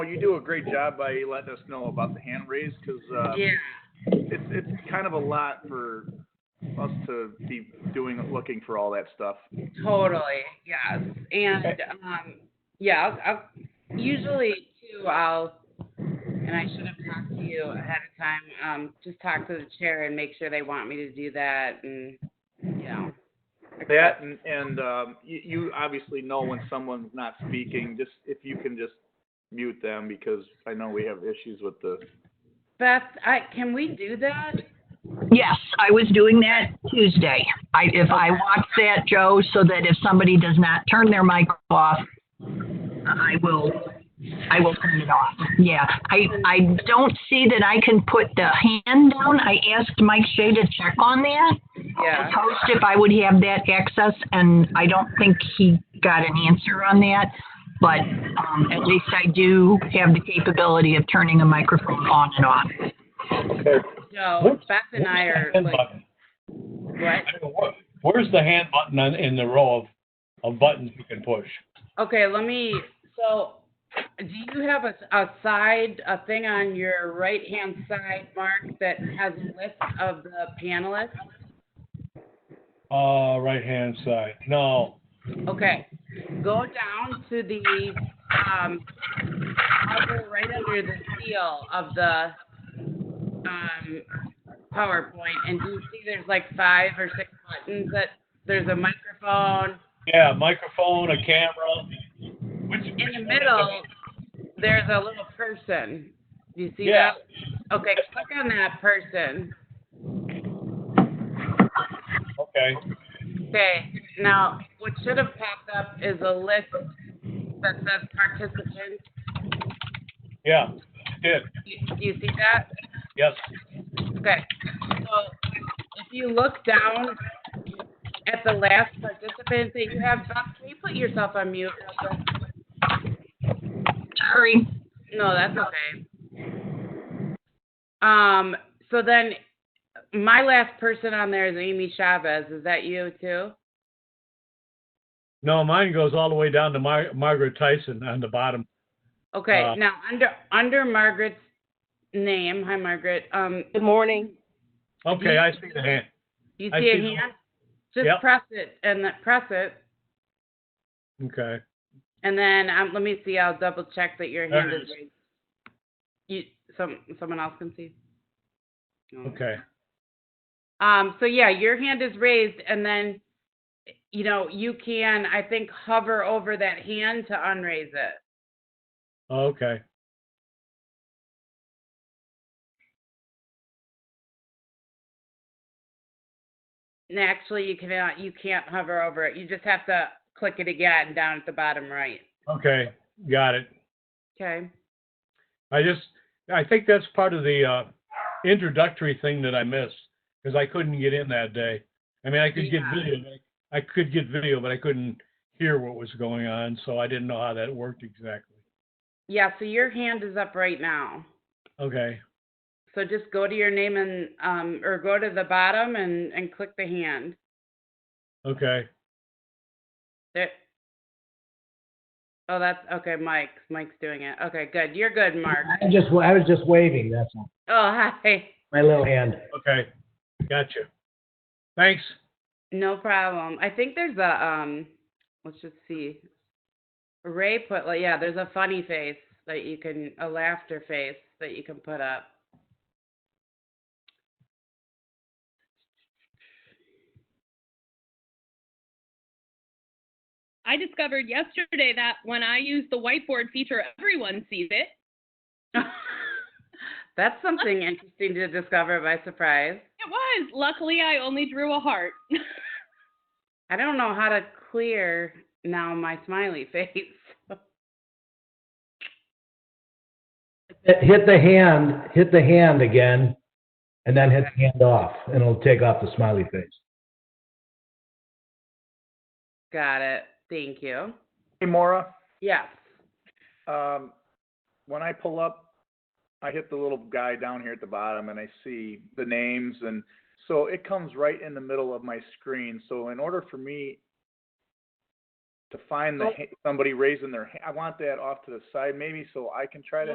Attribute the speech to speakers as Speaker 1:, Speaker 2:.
Speaker 1: Well, you do a great job by letting us know about the hand raise because uh,
Speaker 2: Yeah,
Speaker 1: it's it's kind of a lot for us to be doing looking for all that stuff.
Speaker 2: totally. Yes. And um, yeah, I'll, I'll, usually too, I'll, and I should have talked to you ahead of time, um, just talk to the chair and make sure they want me to do that and, you know.
Speaker 1: That and, and um, you, you obviously know when someone's not speaking. Just if you can just mute them because I know we have issues with the.
Speaker 2: Beth, I, can we do that?
Speaker 3: Yes, I was doing that Tuesday. I, if I watch that, Joe, so that if somebody does not turn their mic off, I will, I will turn it off. Yeah, I, I don't see that I can put the hand down. I asked Mike Shea to check on that.
Speaker 2: Yeah.
Speaker 3: Post if I would have that access, and I don't think he got an answer on that. But, um, at least I do have the capability of turning a microphone on and off.
Speaker 4: Okay.
Speaker 2: So
Speaker 4: Where's-
Speaker 2: Beth and I
Speaker 4: where's the
Speaker 2: are
Speaker 4: hand
Speaker 2: like,
Speaker 4: button?
Speaker 2: what?
Speaker 4: I mean, where- Where's the hand button on, in the row of, of buttons you can push?
Speaker 2: Okay, let me, so, do you have a, a side, a thing on your right-hand side, Mark, that has a list of the panelists?
Speaker 4: Uh, right-hand side. No,
Speaker 2: Okay, go down to the, um, other- right under the seal of the, um, PowerPoint, and do you see there's like five or six buttons that, there's a microphone,
Speaker 4: yeah, microphone, a camera. Which,
Speaker 2: in the middle, there's a little person. Do you see
Speaker 4: Yeah.
Speaker 2: that? Okay, click on that person.
Speaker 4: Okay,
Speaker 2: Okay, now what should have popped up is a list that says participants.
Speaker 4: yeah, did,
Speaker 2: You- Do you see that?
Speaker 4: yes.
Speaker 2: Okay, so if you look down at the last participant that you have, Beth, can you put yourself on mute? real quick?
Speaker 3: Sorry.
Speaker 2: No, that's okay. Um, so then, my last person on there is Amy Chavez. Is that you too?
Speaker 4: No, mine goes all the way down to Mar- Margaret Tyson on the bottom.
Speaker 2: Okay,
Speaker 4: Uh,
Speaker 2: now under under Margaret's name, hi Margaret. Um,
Speaker 5: Good morning.
Speaker 4: Okay, I see the hand.
Speaker 2: you
Speaker 4: I
Speaker 2: see a
Speaker 4: see the-
Speaker 2: hand? Just
Speaker 4: Yep.
Speaker 2: press it and then press it,
Speaker 4: Okay,
Speaker 2: and then um, let me see. I'll double check that your
Speaker 4: There
Speaker 2: hand
Speaker 4: it
Speaker 2: is
Speaker 4: is.
Speaker 2: raised. You, some someone else can see. No.
Speaker 4: okay.
Speaker 2: Um, so yeah, your hand is raised and then, you know, you can, I think, hover over that hand to unraise it.
Speaker 4: Okay.
Speaker 2: And actually, you cannot, you can't hover over it. You just have to click it again down at the bottom right.
Speaker 4: Okay, got it.
Speaker 2: Okay.
Speaker 4: I just, I think that's part of the uh, introductory thing that I missed because I couldn't get in that day. I mean, I could get
Speaker 2: Yeah.
Speaker 4: video, but I I could get video, but I couldn't hear what was going on, so I didn't know how that worked exactly.
Speaker 2: Yeah. So your hand is up right now.
Speaker 4: Okay,
Speaker 2: So just go to your name and, um, or go to the bottom and, and click the hand.
Speaker 4: okay,
Speaker 2: There. Oh, that's okay. Mike, Mike's doing it. Okay, good. You're good, Mark.
Speaker 6: I just, I was just waving, that's all.
Speaker 2: Oh, hi.
Speaker 6: My little hand.
Speaker 4: okay, gotcha. Thanks.
Speaker 2: No problem. I think there's a um let's just see. Ray put like yeah, there's a funny face that you can a laughter face that you can put up.
Speaker 7: I discovered yesterday that when I use the whiteboard feature, everyone sees it.
Speaker 2: That's something interesting to discover by surprise.
Speaker 7: It was. Luckily, I only drew a heart.
Speaker 2: I don't know how to clear now my smiley face.
Speaker 6: Hit the hand, hit the hand again, and then hit the hand off, and it'll take off the smiley face.
Speaker 2: Got it. Thank you.
Speaker 1: Hey, Maura.
Speaker 2: Yes.
Speaker 1: Um, when I pull up, I hit the little guy down here at the bottom and I see the names and so it comes right in the middle of my screen. So in order for me to find the, ha- somebody raising their, ha- I want that off to the side maybe so I can try to